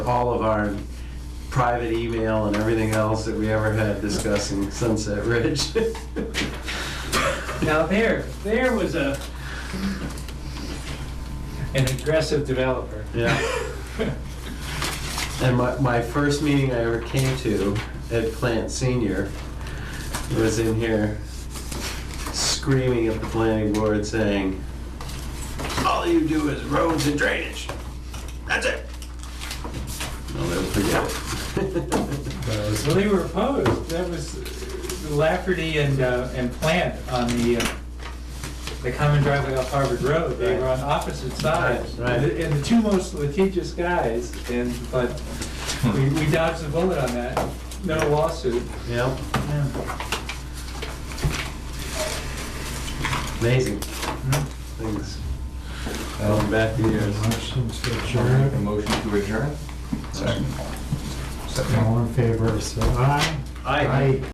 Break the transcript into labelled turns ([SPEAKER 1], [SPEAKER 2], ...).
[SPEAKER 1] all of our private email and everything else that we ever had discussing Sunset Ridge.
[SPEAKER 2] Now there, there was a, an aggressive developer.
[SPEAKER 1] yeah. And my, my first meeting I ever came to at Plant Senior was in here screaming at the planning board saying, all you do is roads and drainage. That's it. I'll never forget it.
[SPEAKER 2] Well, they were opposed, that was Lafferty and, uh, and Plant on the, uh, the common driveway off Harvard Road, they were on opposite sides.
[SPEAKER 1] Right, right.
[SPEAKER 2] And the two most litigious guys, and, but we we dodged the bullet on that, no lawsuit.
[SPEAKER 1] yeah, amazing things. Going back years.
[SPEAKER 3] Adjourn.
[SPEAKER 4] A motion to adjourn?
[SPEAKER 3] All in favor, say aye.
[SPEAKER 1] Aye.